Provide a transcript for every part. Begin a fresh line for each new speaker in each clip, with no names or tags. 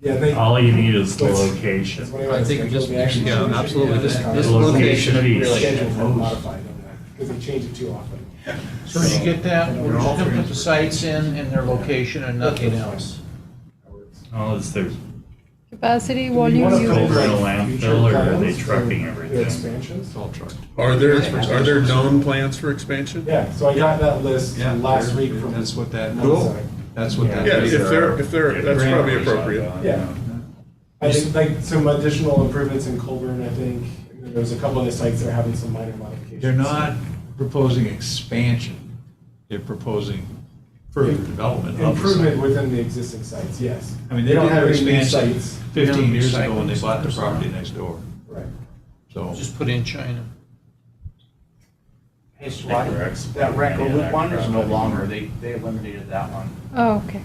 Yeah, they.
All you need is the
That's-
location.
that's what was
I think we
thinking.
just-
We actually
yeah,
should-
absolutely.
yeah, this
This-
time.
this
The
location
should be
piece.
Scheduled and modified on that, because they change it too often.
So as you get that, we're just gonna put the sites in and their location and nothing else.
Oh, is there,
Capacity,
Do we
volume,
wanna
you-
build,
use.
Over
like,
the landfill,
future
or are they
plans for
trucking
the
everything?
Expansions?
Are there, are there known plans for expansion?
Yeah, so I got that list
Yeah,
last
there-
week from.
That's what that,
Cool.
that's what that.
Yeah, if
is.
they're, if they're, that's probably appropriate.
Yeah. I think like some additional improvements in Colburn, I think, and then there's a couple of the sites that are having some minor modifications.
They're not proposing expansion, they're proposing further development of the site.
Improvement within the existing sites, yes.
I mean, they did
don't
have
have any new
expansion
sites.
fifteen years ago when they bought the property next door,
Right.
so.
Just put in China.
Hey, Swati, that rec loop one is no longer, they, they eliminated that one.
Oh, okay.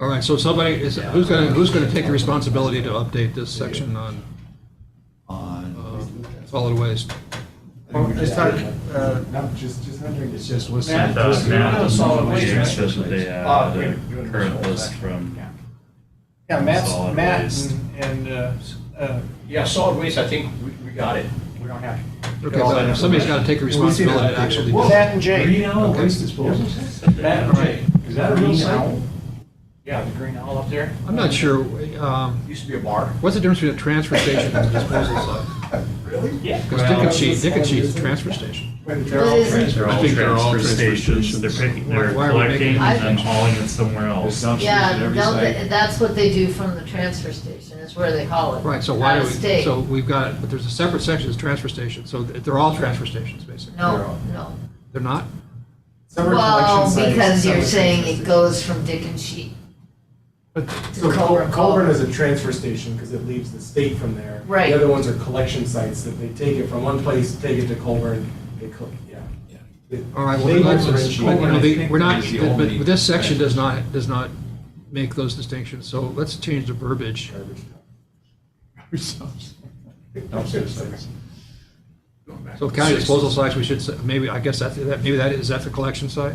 All right, so somebody, is, who's gonna, who's gonna take the responsibility to update this section on uh,
On,
solid waste?
Well, it's not, uh,
No, just, just wondering.
it's just what's.
I thought Matt
Yeah,
was
solid waste
says that they had
Uh,
a
we- we-
current
we-
list from,
Yeah. Yeah, Matt's,
Solid
Matt
waste.
and- and, uh, uh, yeah, solid waste, I think we, we got it. We don't have. to
Okay,
get all that
but somebody's
information.
gotta take the responsibility to actually do it.
Matt and Jay.
Oh,
Green Waste Disposal
Matt and Jay.
Is that a real
Green
site?
Owl. Yeah, the green owl up there.
I'm not sure, um,
Used to be a bar.
what's the difference between a transfer station and a disposal site?
yeah.
Because Dickinson, Dickinson's a transfer station.
They're all friends.
They're
I
all
think they're all transfer
transfer stations,
stations.
they're picking,
Why-
they're
why are we
collecting
making-
and then hauling it somewhere else.
Dumpsters
Yeah,
at every
they'll-
site.
that's what they do from the transfer station, is where they haul it.
Right, so why do
Out of
we,
state.
so we've got, but there's a separate section that's transfer station, so they're all transfer stations, basically.
No, no.
They're not?
Summer collection
Well,
sites,
because you're
summer
saying
transfer
it goes from Dick and Sheet
stations.
to
So Col-
Culver.
Colburn is a transfer station because it leaves the state from there.
Right.
The other ones are collection sites that they take it from one place, take it to Colburn, they, co- yeah.
Yeah.
They-
All right, well,
they
let's-
will
let's-
differentiate.
you know, the- we're not,
I think that's the
but
only-
but this section does not, does not make those distinctions, so let's change the verbiage.
Garbage dump.
Dumpster sites.
So county disposal sites, we should, say- maybe, I guess that's, that, maybe that, is that the collection site?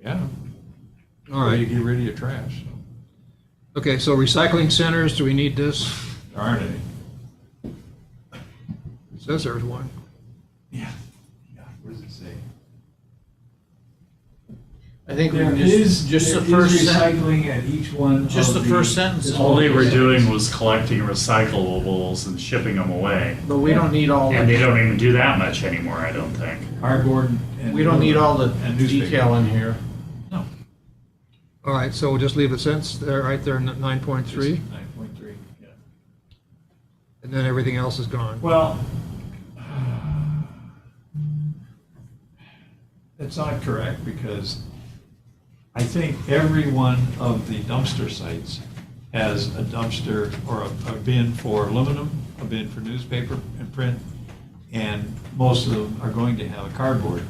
Yeah.
All
You
right,
get rid of your trash. so.
okay, so recycling centers, do we need this?
There aren't any.
It Says there's one.
Yeah. Yeah. What does it say?
I think we
There
can just,
is,
just the
there
first
is
sentence.
recycling at each one of
Just the first sentence.
All they were doing was collecting recyclables and shipping them away.
But we don't need all,
And they
the
don't even do that much anymore, I don't think.
Cardboard and.
we don't need all the
and newspaper.
detail in here.
No.
All right, so we'll just leave the sentence there, right there, nine point three,
Nine point three, yeah.
and then everything else is gone.
Well. That's not correct because I think every one of the dumpster sites has a dumpster or a- a bin for aluminum, a bin for newspaper and print, and most of them are going to have a cardboard.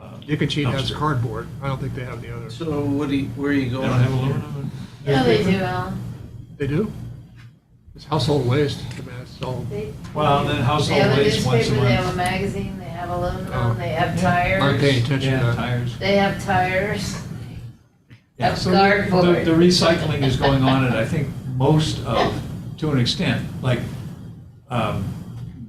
uh,
Dick cheat has
dumpster.
cardboard, I don't think they have the others.
So what do you, where are you
They
going?
don't have aluminum? and
Yeah, they do,
newspaper?
Alan.
They do? It's household waste, I mean, it's all,
They-
Well, then
They have
household
a
waste once a
newspaper, they have a
month.
magazine, they have
Oh.
aluminum, they have
aren't paying
tires,
attention to
Yeah,
that.
tires.
they have tires.
Yeah,
Of
so the-
cardboard.
The the recycling is going on at, I think, most of, to an extent, like um,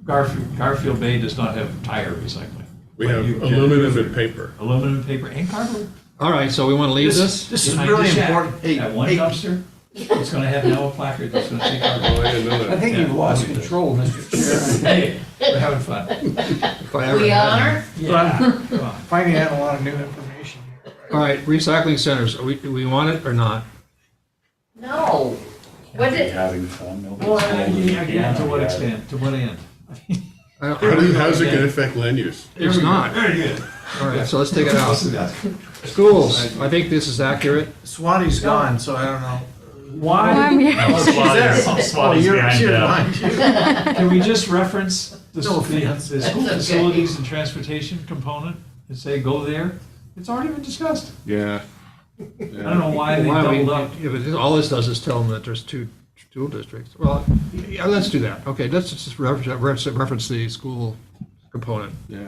Garfield, Garfield Bay does not have tire recycling.
We
But
have
you can-
aluminum and paper.
Aluminum, paper, and cardboard.
All right, so we want to leave this?
This is
Behind
really
the shack,
important. Hey,
That one
hey.
dumpster, it's gonna have an yellow placard that's gonna say
Oh, I
cardboard.
didn't know that.
I think you've lost control, Mr. Chair.
Hey, we're having fun.
If I ever
We
had one.
are,
Yeah, come on.
Finding out a lot of new information here.
All right, recycling centers, are we, do we want it or not?
no. What did,
Having fun. nobody's
Well,
holding it
yeah, yeah, to
down,
what
yeah.
extent, to what end?
I don't-
How do you- how's it gonna affect land use?
There we
It's
go.
not.
Very good.
All right, so let's take it out.
Yeah.
Schools, I think this is accurate.
Swati's gone, so I don't know.
Why?
I'm here.
No, Swati's- Swati's behind
you're
them.
behind you.
Can we just reference the,
No
the-
offense.
the school
That's okay.
facilities and transportation component and say, go there? It's already been discussed.
Yeah.
I don't know why they
Why don't we-
doubled up.
yeah, but this- all this does is tell them that there's two school districts. Well, yeah, let's do that. Okay, let's just reference, reference the school component.
Yeah.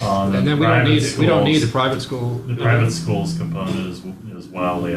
Um,
And then we don't
private
need, we don't need the
schools-
private school.
The private schools component is, is wildly